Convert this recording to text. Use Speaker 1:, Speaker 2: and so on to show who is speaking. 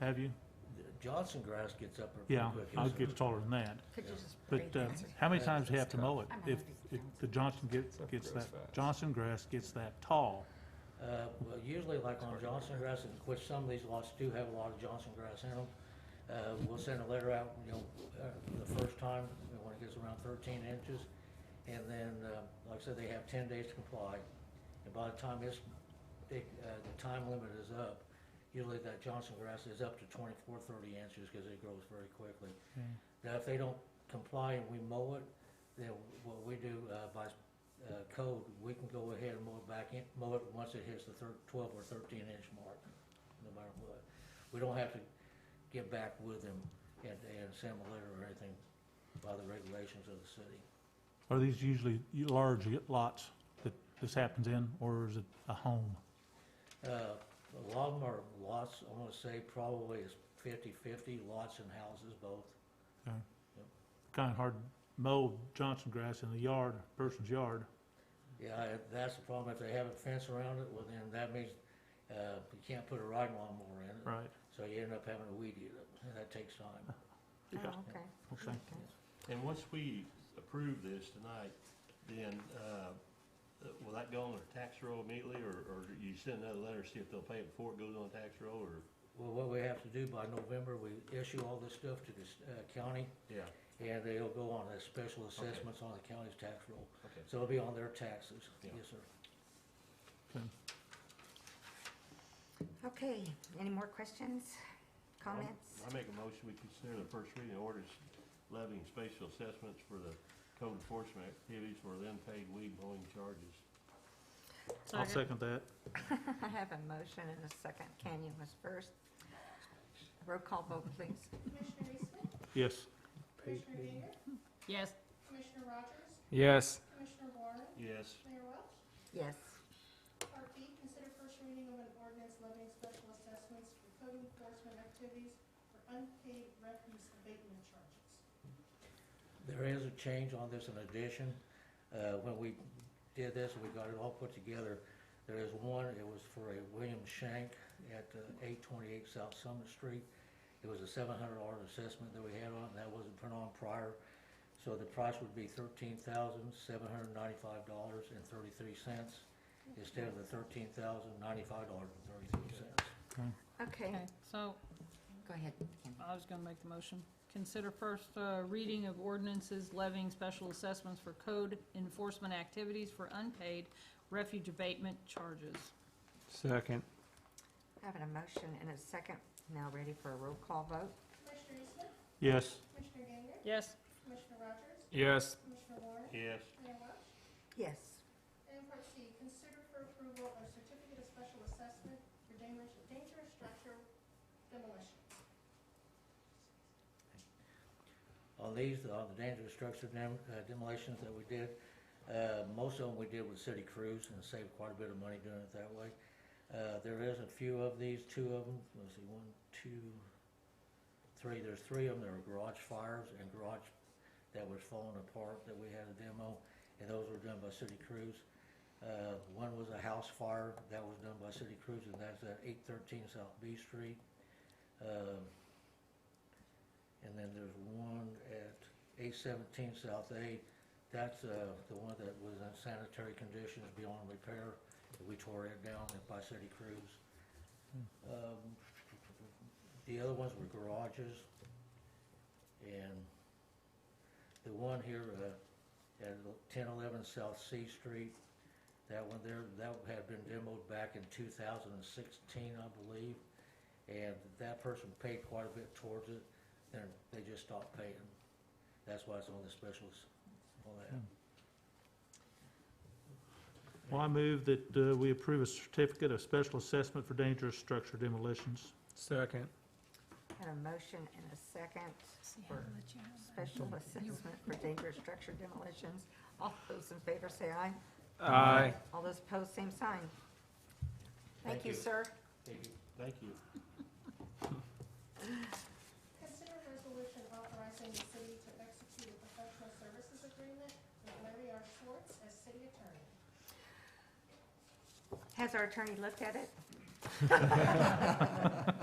Speaker 1: Have you?
Speaker 2: Johnson grass gets up there
Speaker 1: Yeah,
Speaker 2: pretty quick.
Speaker 1: I
Speaker 2: isn't
Speaker 1: gets
Speaker 2: it?
Speaker 1: taller than that.
Speaker 3: Could you just read
Speaker 1: But
Speaker 3: the
Speaker 1: uh,
Speaker 3: answer?
Speaker 1: how many
Speaker 2: Yeah,
Speaker 1: times do you have to
Speaker 4: tough.
Speaker 1: mow it?
Speaker 3: I'm not
Speaker 1: If,
Speaker 3: gonna do
Speaker 1: if
Speaker 3: that.
Speaker 1: the Johnson gets,
Speaker 4: Stuff
Speaker 1: gets
Speaker 4: grows
Speaker 1: that,
Speaker 4: fast.
Speaker 1: Johnson grass gets that tall,
Speaker 2: Uh, well, usually like on Johnson grass, and of course, some of these lots do have a lot of Johnson grass in them. Uh, we'll send a letter out, you know, uh, the first time, you know, when it gets around thirteen inches. And then, uh, like I said, they have ten days to comply. And by the time this, it, uh, the time limit is up, usually that Johnson grass is up to 24, 30 inches, cause it grows very quickly.
Speaker 1: okay?
Speaker 2: Now, if they don't comply and we mow it, then what we do uh, by uh, code, we can go ahead and mow it back in, mow it once it hits the thir- twelve or thirteen inch mark, no matter what. We don't have to get back with them and, and send them a letter or anything by the regulations of the city.
Speaker 1: Are these usually large lots that this happens in, or is it a home?
Speaker 2: Uh, A lot of them are lots, I'm gonna say probably is fifty-fifty, lots and houses both.
Speaker 1: Kind of hard to mow Johnson grass in the yard, person's yard.
Speaker 2: Yeah, I- that's the problem, if they have a fence around it, well then that means, uh, you can't put a riding lawnmower in it.
Speaker 1: Right.
Speaker 2: So you end up having to weed eat it, and that takes time.
Speaker 1: Yeah,
Speaker 3: Oh, okay.
Speaker 1: okay.
Speaker 3: Okay.
Speaker 5: And once we approve this tonight, then, uh, will that go on their tax roll immediately, or, or do you send another letter, see if they'll pay it before it goes on tax roll, or?
Speaker 2: Well, what we have to do by November, we issue all this stuff to the s- uh, county,
Speaker 5: Yeah,
Speaker 2: and they'll go on as special assessments on the county's tax roll.
Speaker 5: okay.
Speaker 2: So it'll be on their taxes,
Speaker 5: Yeah.
Speaker 2: yes, sir.
Speaker 3: Okay, any more questions, comments?
Speaker 5: I make a motion, we consider the first reading of orders levying spatial assessments for the code enforcement activities for the unpaid weed mowing charges.
Speaker 1: I'll second that.
Speaker 3: I have a motion and a second. Canyon was first. Roll call vote, please.
Speaker 6: Commissioner Eastman?
Speaker 1: Yes.
Speaker 6: Commissioner Gager?
Speaker 4: Yes.
Speaker 6: Commissioner Rogers?
Speaker 7: Yes.
Speaker 6: Commissioner Warren?
Speaker 5: Yes,
Speaker 6: Mayor Welch?
Speaker 3: Yes.
Speaker 6: Part B, consider first reading of an ordinance levying special assessments for code enforcement activities for unpaid refuse abatement charges.
Speaker 2: There is a change on this in addition. Uh, When we did this, we got it all put together. There is one, it was for a William Shank at uh, eight twenty-eight South Summit Street. It was a seven hundred dollar assessment that we had on, and that wasn't put on prior. So the price would be thirteen thousand, seven hundred ninety-five dollars and thirty-three cents instead of the thirteen thousand, ninety-five dollars and thirty-three cents.
Speaker 3: Okay,
Speaker 4: Okay, so
Speaker 3: go ahead. Kim.
Speaker 4: I was gonna make the motion. Consider first, uh, reading of ordinances levying special assessments for code enforcement activities for unpaid refuge abatement charges.
Speaker 7: Second.
Speaker 3: I have a motion and a second. Now ready for a roll call vote?
Speaker 6: Commissioner Eastman?
Speaker 1: Yes.
Speaker 6: Commissioner Gager?
Speaker 4: Yes,
Speaker 6: Commissioner Rogers?
Speaker 7: Yes.
Speaker 6: Commissioner Warren?
Speaker 5: yes,
Speaker 6: Mayor Welch?
Speaker 3: Yes.
Speaker 6: And part C, consider for approval of certificate of special assessment for dangerous, dangerous structure demolition.
Speaker 2: on these, on the dangerous structure dem- uh, demolitions that we did. Uh, Most of them we did with city crews and saved quite a bit of money doing it that way. Uh, There is a few of these, two of them, let's see, one, two, three, there's three of them, there were garage fires and garage that was falling apart that we had a demo, and those were done by city crews. Uh, One was a house fire, that was done by city crews, and that's at eight thirteen South B Street. Um, and then there's one at eight seventeen South A. That's, uh, the one that was in sanitary conditions beyond repair. We tore it down by City Crews. Um, the other ones were garages. And the one here, uh, at ten eleven South C Street, that one there, that had been demoed back in two thousand and sixteen, I believe. And that person paid quite a bit towards it they're, they just stopped paying. That's why it's on the specials, all that.
Speaker 1: Well, I move that uh, we approve a certificate of special assessment for dangerous structure demolitions.
Speaker 7: Second.
Speaker 3: I have a motion and a second for special assessment for dangerous structure demolitions. All those in favor say aye.
Speaker 7: Aye.
Speaker 3: All those opposed, same sign. Thank
Speaker 2: Thank
Speaker 3: you,
Speaker 2: you.
Speaker 3: sir.
Speaker 2: Thank you.
Speaker 5: thank you.
Speaker 6: Consider a resolution authorizing the city to execute a professional services agreement with Larry R. Schwartz as city attorney.
Speaker 3: Has our attorney looked at it?